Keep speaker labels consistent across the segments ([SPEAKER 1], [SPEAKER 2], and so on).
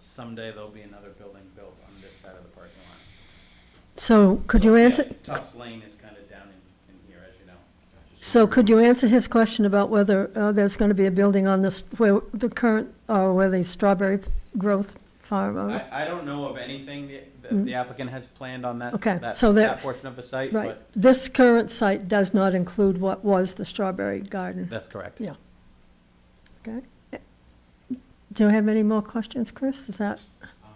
[SPEAKER 1] someday there'll be another building built on this side of the parking lot.
[SPEAKER 2] So could you
[SPEAKER 3] Oh,
[SPEAKER 1] Yeah,
[SPEAKER 2] answer,
[SPEAKER 1] Tufts Lane is kind of down in, in here, as you know.
[SPEAKER 2] so could you answer his question about whether uh, there's going to be a building on this, where the current, uh, where the strawberry growth farm? uh,
[SPEAKER 1] I, I don't know of anything that- that the applicant has planned on that,
[SPEAKER 2] Mm. Okay,
[SPEAKER 1] that,
[SPEAKER 2] so there-
[SPEAKER 1] that portion of the site,
[SPEAKER 2] Right,
[SPEAKER 1] but
[SPEAKER 2] this current site does not include what was the strawberry garden,
[SPEAKER 1] that's correct.
[SPEAKER 2] Yeah. okay? Do you have any more questions, Chris? Is that,
[SPEAKER 3] Um,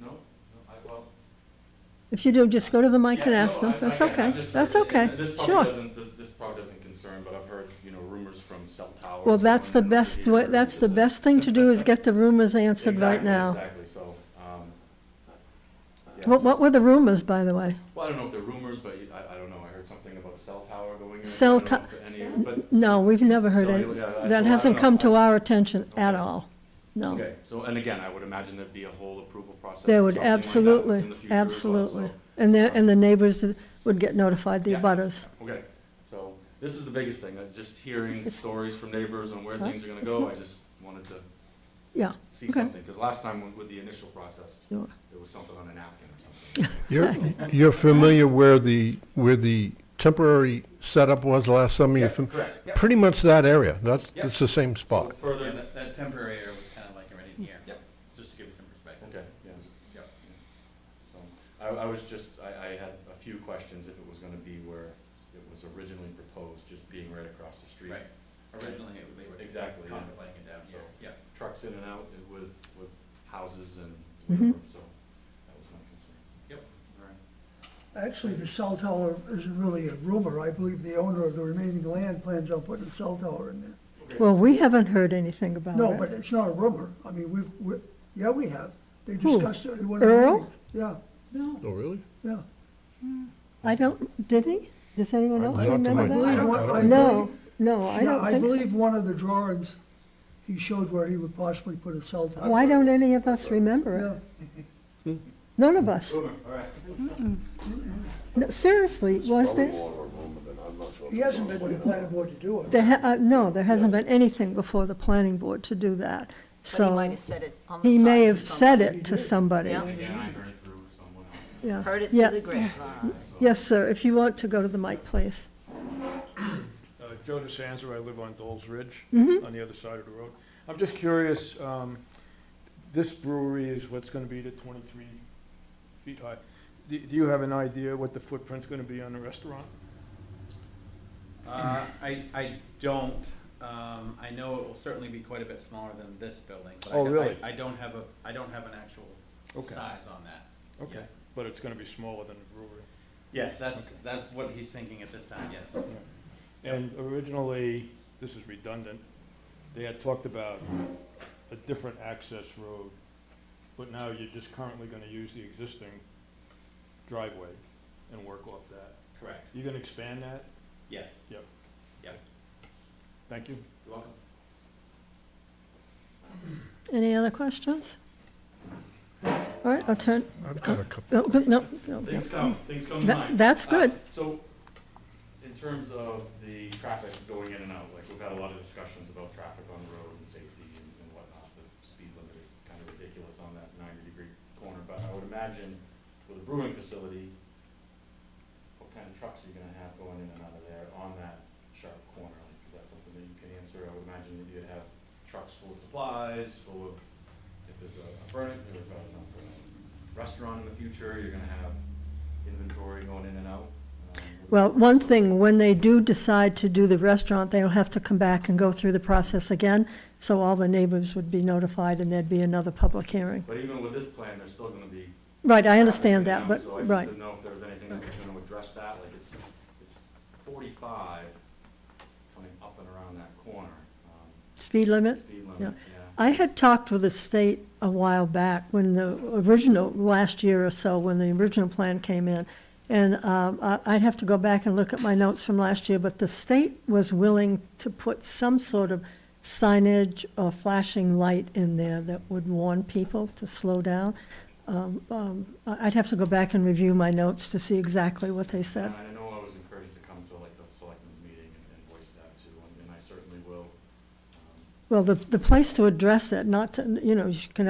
[SPEAKER 3] No, no, I, well.
[SPEAKER 2] if you do, just go to the mic
[SPEAKER 3] yeah,
[SPEAKER 2] and
[SPEAKER 3] no,
[SPEAKER 2] ask them,
[SPEAKER 3] I- I
[SPEAKER 2] that's
[SPEAKER 3] get-
[SPEAKER 2] okay,
[SPEAKER 3] I'm just-
[SPEAKER 2] that's
[SPEAKER 3] it- it-
[SPEAKER 2] okay,
[SPEAKER 3] This probably
[SPEAKER 2] sure.
[SPEAKER 3] doesn't, this, this probably doesn't concern, but I've heard, you know, rumors from cell towers.
[SPEAKER 2] Well, that's the
[SPEAKER 3] and- and other
[SPEAKER 2] best,
[SPEAKER 3] people
[SPEAKER 2] way- that's the
[SPEAKER 3] that-
[SPEAKER 2] best thing to do is get the rumors answered right
[SPEAKER 3] Exactly,
[SPEAKER 2] now.
[SPEAKER 3] Exactly, so, um. yeah,
[SPEAKER 2] What, what
[SPEAKER 3] just-
[SPEAKER 2] were the rumors, by the way?
[SPEAKER 3] Well, I don't know if they're rumors, but you- I, I don't know, I heard something about a cell tower going in.
[SPEAKER 2] Cell
[SPEAKER 3] I don't know
[SPEAKER 2] to-
[SPEAKER 3] if any- But,
[SPEAKER 2] No, we've never heard
[SPEAKER 3] So
[SPEAKER 2] any,
[SPEAKER 3] you- yeah, I- so I
[SPEAKER 2] that hasn't
[SPEAKER 3] don't
[SPEAKER 2] come
[SPEAKER 3] know.
[SPEAKER 2] to our attention at
[SPEAKER 3] Okay.
[SPEAKER 2] all, no.
[SPEAKER 3] okay, so, and again, I would imagine there'd be a whole approval process.
[SPEAKER 2] They
[SPEAKER 3] for
[SPEAKER 2] would,
[SPEAKER 3] something like that in
[SPEAKER 2] absolutely,
[SPEAKER 3] the future as well,
[SPEAKER 2] absolutely.
[SPEAKER 3] so.
[SPEAKER 2] And the, and the neighbors would get notified, the
[SPEAKER 3] Yeah.
[SPEAKER 2] abutters.
[SPEAKER 3] Okay, so this is the biggest thing, uh, just hearing
[SPEAKER 2] It's-
[SPEAKER 3] stories from neighbors on where
[SPEAKER 2] Huh?
[SPEAKER 3] things are gonna
[SPEAKER 2] It's
[SPEAKER 3] go,
[SPEAKER 2] not-
[SPEAKER 3] I just wanted to
[SPEAKER 2] yeah.
[SPEAKER 3] see
[SPEAKER 2] Okay.
[SPEAKER 3] something, because last time with- with the initial process,
[SPEAKER 2] Sure.
[SPEAKER 3] there was something on a napkin or something.
[SPEAKER 4] You're, you're familiar where the, where the temporary setup was last summer? You're
[SPEAKER 3] Yeah,
[SPEAKER 4] fam-
[SPEAKER 3] Correct, yeah.
[SPEAKER 4] Pretty much that area, that's,
[SPEAKER 3] Yep.
[SPEAKER 4] it's the same spot.
[SPEAKER 1] Yeah,
[SPEAKER 3] Further,
[SPEAKER 1] that, that temporary area was kind of like right in here.
[SPEAKER 3] Yeah.
[SPEAKER 1] Just to give you some perspective.
[SPEAKER 3] okay, yeah, yeah. yeah. So, I, I was just, I, I had a few questions if it was gonna be where it was originally proposed, just being right across the street.
[SPEAKER 1] Right, originally it was, they were
[SPEAKER 3] Exactly, yeah.
[SPEAKER 1] contemplating it down here,
[SPEAKER 3] So-
[SPEAKER 1] yeah.
[SPEAKER 3] Trucks in and out with, with houses and
[SPEAKER 2] Mhm.
[SPEAKER 3] whatever, so that was my concern.
[SPEAKER 1] Right.
[SPEAKER 5] Actually, the cell tower isn't really a rumor. I believe the owner of the remaining land plans on putting a cell tower in there.
[SPEAKER 2] Well, we haven't heard anything about it.
[SPEAKER 5] No, but it's not a rumor. I mean, we've, we, yeah, we have. They
[SPEAKER 2] Who?
[SPEAKER 5] discussed it in one of the
[SPEAKER 2] Earl?
[SPEAKER 5] meetings. Yeah,
[SPEAKER 4] Oh, really?
[SPEAKER 5] yeah.
[SPEAKER 2] I don't, did he? Does anyone
[SPEAKER 4] I
[SPEAKER 2] else
[SPEAKER 4] talked to
[SPEAKER 2] remember
[SPEAKER 4] my- I
[SPEAKER 2] that?
[SPEAKER 5] don't- I don't-
[SPEAKER 2] No, no, I
[SPEAKER 5] Yeah,
[SPEAKER 2] don't
[SPEAKER 5] I
[SPEAKER 2] think so.
[SPEAKER 5] believe one of the drawings, he showed where he would possibly put a cell tower.
[SPEAKER 2] Why don't any of us remember
[SPEAKER 5] Yeah,
[SPEAKER 2] it? None of us. No, Seriously, was there?
[SPEAKER 5] he hasn't been to the planning board to do it.
[SPEAKER 2] There, ha- uh, no, there hasn't been anything before the planning board to do that.
[SPEAKER 6] But he might
[SPEAKER 2] So
[SPEAKER 6] have said it on the
[SPEAKER 2] he
[SPEAKER 6] side
[SPEAKER 2] may
[SPEAKER 6] to
[SPEAKER 2] have said
[SPEAKER 5] He
[SPEAKER 2] it to
[SPEAKER 5] did.
[SPEAKER 2] somebody.
[SPEAKER 6] Yeah.
[SPEAKER 3] Again, I heard it through someone else.
[SPEAKER 2] yeah,
[SPEAKER 6] somebody. Heard it
[SPEAKER 2] yeah.
[SPEAKER 6] through the grapevine.
[SPEAKER 2] Yes, sir, if you want to go to the mic, please.
[SPEAKER 7] Uh, Joe DeSanza, I live on Dole's Ridge, on the other side of the road. I'm just curious, um, this brewery is what's gonna be the twenty-three feet high. Do, do you have an idea what the footprint's gonna be on the restaurant?
[SPEAKER 1] Uh, I, I don't, um, I know it will certainly be quite a bit smaller than this building, but I
[SPEAKER 7] Oh,
[SPEAKER 1] don't- I-
[SPEAKER 7] really?
[SPEAKER 1] I don't have a, I don't have an actual
[SPEAKER 7] Okay.
[SPEAKER 1] size on that.
[SPEAKER 7] Okay, but it's gonna be smaller than the brewery.
[SPEAKER 1] Yes, that's, that's what he's thinking at this time, yes.
[SPEAKER 7] And originally, this is redundant, they had talked about a different access road, but now you're just currently gonna use the existing driveway and work off that.
[SPEAKER 1] Correct,
[SPEAKER 7] You gonna expand that?
[SPEAKER 1] yes.
[SPEAKER 7] Thank you.
[SPEAKER 1] You're welcome.
[SPEAKER 2] Any other questions? All right, I'll turn,
[SPEAKER 4] I've got a couple.
[SPEAKER 2] no, no, no.
[SPEAKER 3] Things come, things come to
[SPEAKER 2] That-
[SPEAKER 3] mind.
[SPEAKER 2] that's
[SPEAKER 3] Uh,
[SPEAKER 2] good.
[SPEAKER 3] So, in terms of the traffic going in and out, like, we've had a lot of discussions about traffic on the road and safety and and whatnot. The speed limit is kind of ridiculous on that ninety-degree corner, but I would imagine with a brewing facility, what kind of trucks are you gonna have going in and out of there on that sharp corner? Like, Is that something that you can answer? I would imagine that you'd have trucks full of supplies, full of, if there's a a burn, if there's a restaurant in the future, you're gonna have inventory going in and out. um, with-
[SPEAKER 2] Well, one thing, when they do decide to do the restaurant, they'll have to come back and go through the process again, so all the neighbors would be notified and there'd be another public hearing.
[SPEAKER 3] But even with this plan, there's still gonna be.
[SPEAKER 2] Right, I understand
[SPEAKER 3] traffic
[SPEAKER 2] that,
[SPEAKER 3] in
[SPEAKER 2] but,
[SPEAKER 3] and out, So I just
[SPEAKER 2] right,
[SPEAKER 3] didn't know if there was anything that was gonna address that, like it's, it's forty-five coming up and around that corner, um,
[SPEAKER 2] speed limit.
[SPEAKER 3] speed
[SPEAKER 2] Yeah.
[SPEAKER 3] limit, yeah.
[SPEAKER 2] I had talked with the state a while back when the original, last year or so, when the original plan came in. And um, I- I'd have to go back and look at my notes from last year, but the state was willing to put some sort of signage or flashing light in there that would warn people to slow down. Um, um, I- I'd have to go back and review my notes to see exactly what they said.
[SPEAKER 3] And I know I was encouraged to come to like the selectmen's meeting and and voice that too, and- and I certainly will. um,
[SPEAKER 2] Well, the, the place to address that, not to, you know, you can